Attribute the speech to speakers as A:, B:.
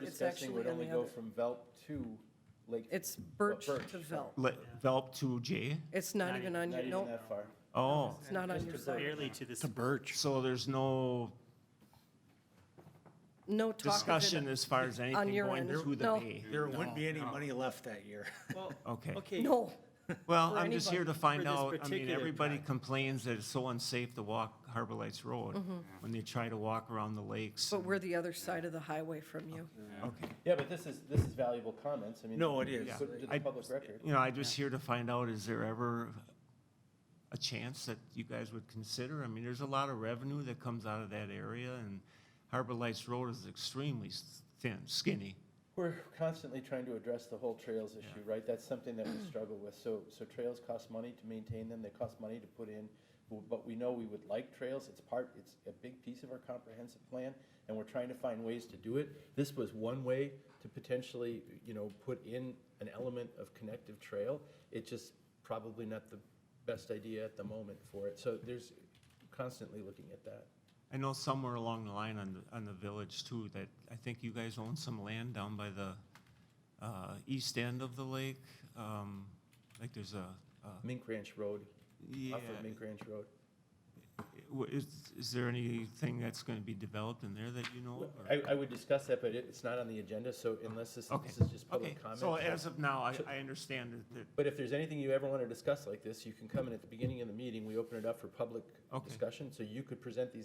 A: discussing would
B: actually on
A: only
B: the
A: go
B: other-
A: from Velp to Lake.
B: It's Birch
A: Birch,
B: to Velp.
C: Le- Velp to J?
B: It's not
D: Not
B: even
D: even-
B: on
A: Not
B: your,
A: even
B: no,
A: that far.
C: Oh,
B: it's not on your side.
D: Barely to this,
E: to Birch.
C: so there's no
B: No talk of
C: discussion
B: it.
C: as far as anything
B: your
C: going
B: end.
C: to the
B: No.
C: bay?
E: There wouldn't be any money left that year.
D: well,
C: Okay.
D: okay,
B: No,
C: Well,
B: for
C: I'm just here to
B: anybody,
C: find
D: for this
C: out, I mean,
D: particular
C: everybody
D: project.
C: complains that it's so unsafe to walk Harbor Lights Road
B: Mm-hmm.
C: when they try to walk around the lakes.
B: but we're the other side of the highway from you.
C: Okay.
A: Yeah, but this is, this is valuable comments, I mean.
E: No, it is.
A: Put it to
C: I-
A: the public record.
C: You know, I'm just here to find out, is there ever a chance that you guys would consider? I mean, there's a lot of revenue that comes out of that area, and Harbor Lights Road is extremely s- thin, skinny.
A: We're constantly trying to address the whole trails issue, right? That's something that we struggle with. So, so trails cost money to maintain them, they cost money to put in, w- but we know we would like trails. It's part, it's a big piece of our comprehensive plan, and we're trying to find ways to do it. This was one way to potentially, you know, put in an element of connective trail. It's just probably not the best idea at the moment for it. So there's constantly looking at that.
C: I know somewhere along the line on the, on the village too, that I think you guys own some land down by the, uh, east end of the lake. Um, like there's a, uh,
A: Mink Ranch Road,
C: yeah,
A: off of Mink Ranch Road.
C: w- is, is there anything that's gonna be developed in there that you know? of, or-
A: I, I would discuss that, but it- it's not on the agenda, so unless this,
C: Okay.
A: this is just
C: Okay,
A: public comment.
C: so as of now, I, I understand that, that,
A: But if there's anything you ever want to discuss like this, you can come in at the beginning of the meeting, we open it up for public
C: Okay.
A: discussion, so you could present these